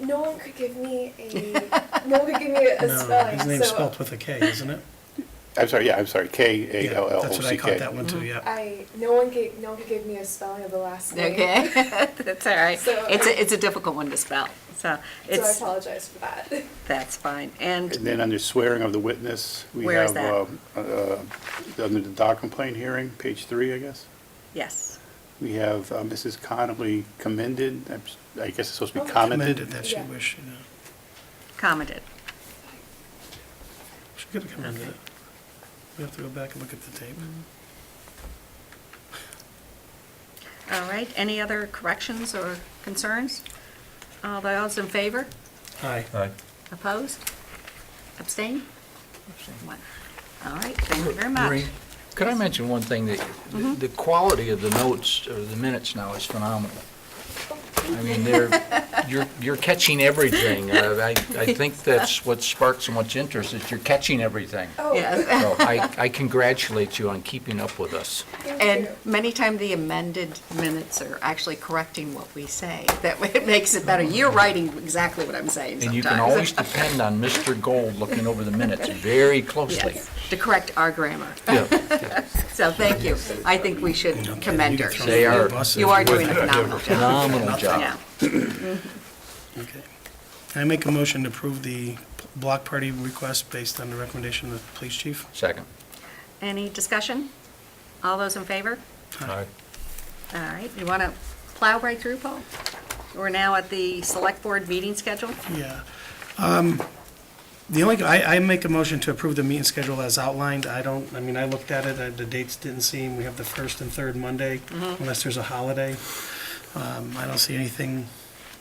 No one could give me a, no one could give me a No, spelling, his name's so spelled with a K, isn't it? I'm sorry, yeah, I'm sorry, K Yeah, A L L O C K. Mm-hmm. Uh-huh. That's what I caught that one too, yeah. I, no one gave, no one could give me a spelling of the last name. Okay, that's all right. So- It's, a- it's a difficult one to spell, so So I it's, apologize for that. that's fine. And And then under swearing of the witness, we Where is have, uh, uh, under the dog complaint hearing, page three, I guess. Yes, We have uh, Mrs. Connolly commended, I'm s- I guess it's supposed to be Oh, Commended commended. that she Yeah. wished, you know. commented. She could have commended it. We have to go back and look at the tape. Mm-hmm. All right, any other corrections or concerns? All those in favor? Aye. Aye. Opposed? Abstain? One. All right, thank you very much. Mm-hmm. Maureen, Could I mention one thing? that The quality of the notes, or the minutes now is phenomenal. I mean, they're, you're, you're catching everything. Uh, I, I think that's what sparked so much interest, is you're catching everything. Oh, Yes. So I, I congratulate you on keeping up with us. thank And you. many times the amended minutes are actually correcting what we say. That way it makes it better. You're writing exactly what I'm saying sometimes. And you can always depend on Mr. Gold looking over the minutes very closely. Yes, to correct our grammar. Yeah. So thank you. I think we should commend her. They are- You are doing a phenomenal job. Phenomenal Yeah. job. Okay. Can I make a motion to approve the block party request based on the recommendation of the police chief? Second. Any discussion? All those in favor? Aye. All right, you want to plow right through, Paul? We're now at the select board meeting schedule. Yeah. Um, The only, I, I make a motion to approve the meeting schedule as outlined. I don't, I mean, I looked at it, uh, the dates didn't seem, we have the first and third Monday, Mm-hmm. unless there's a holiday. Um, I don't see anything,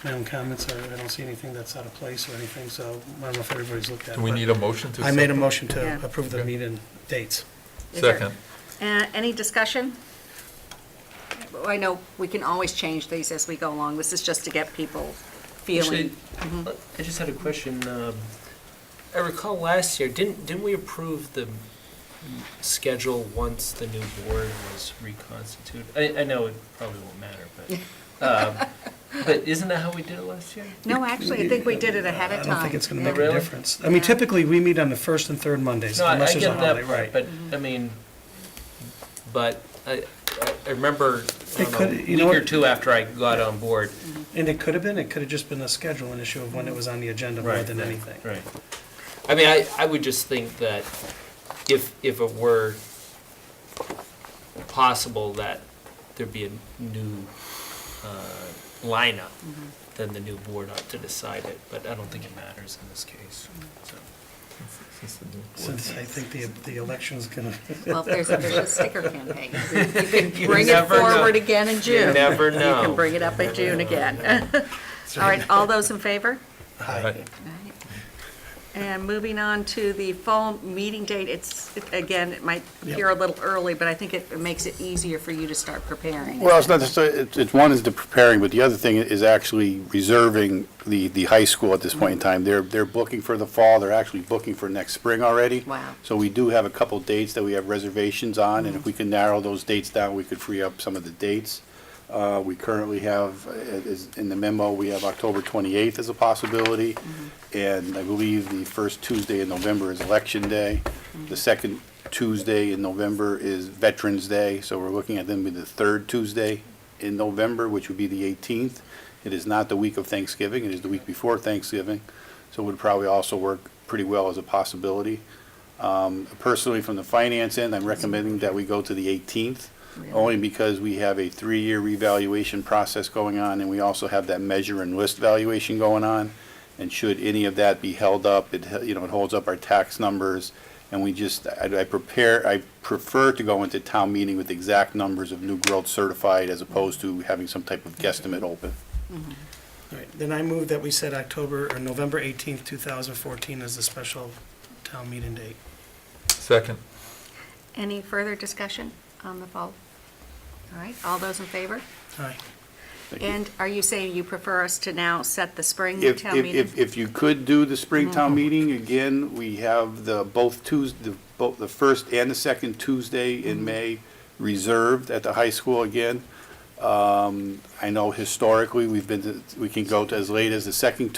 my own comments, are I don't see anything that's out of place or anything, so I don't know if everybody's looked at it. Do we but need a motion to? I made a accept motion to Yeah. approve the meeting dates. it? Is there- Second. Uh, Any discussion? I know we can always change these as we go along. This is just to get people Actually, feeling. I just had a question. um, I recall last year, didn't, didn't we approve the schedule once the new board was reconstituted? I, I know it probably won't matter, but, um, but isn't that how we did it last year? No, actually, I think we did it ahead I of time. don't think it's going Oh, to make a really? difference. I mean, Yeah. typically, we meet on the first and third Mondays, No, I unless I there's a get holiday, that, right? part, but, I mean, but I, I- I remember, I It don't know, could- you know week or what- two after I got on board. And it could have been, it could have just been a scheduling issue of when it was on the agenda more Right, than right, anything. Right. I mean, I, I would just think that if, if it were possible that there'd be a new uh, lineup, Mm-hmm. then the new board ought to decide it, but I don't think it matters in this case. so. Since the new board- Since I think the, the election's gonna, Well, if there's a vicious sticker campaign, you can You bring it never know. forward again in June. never You know. can bring it up in June again. All right, all those in favor? Aye. And moving on to the fall meeting date, it's, again, it might appear a little early, but I think it makes it easier for you to start preparing. Well, it's not, just- it's, it's, one is the preparing, but the other thing is actually reserving the, the high school at this Mm-hmm. point in time. They're, they're booking for the fall, they're actually booking for next spring already. Wow. So we do have a couple dates that we have reservations on, and if we can narrow those dates down, we could free up some of the dates. Uh, we currently have, uh, is, in the memo, we have October twenty-eighth as a possibility, and I believe the first Tuesday in November is Election Day. The second Tuesday in November is Veterans Day, so we're looking at them be the third Tuesday in November, which would be the eighteenth. It is not the week of Thanksgiving, it is the week before Thanksgiving, so it would probably also work pretty well as a possibility. Um, Personally, from the finance end, I'm recommending that we go to the 18th, only because we have a three-year revaluation process going on, and we also have that measure and list valuation going on. And should any of that be held up, it, he- you know, it holds up our tax numbers, and we just, I I prepare, I prefer to go into town meeting with exact numbers of new growth certified as opposed to having some type of guesstimate open. right, then I move that we set October, or November eighteenth, two thousand fourteen as the special town meeting date. Second. Any further discussion on the fall? All right, all those in favor? Aye. Thank you. And are you saying you prefer us to now set the spring If, town if, meeting? if, if you could do the spring town meeting, again, we have the, both Tuesday, both the first and the second Tuesday in May reserved at the high school again. Um, I know historically, we've been, to- we can go to as late as the second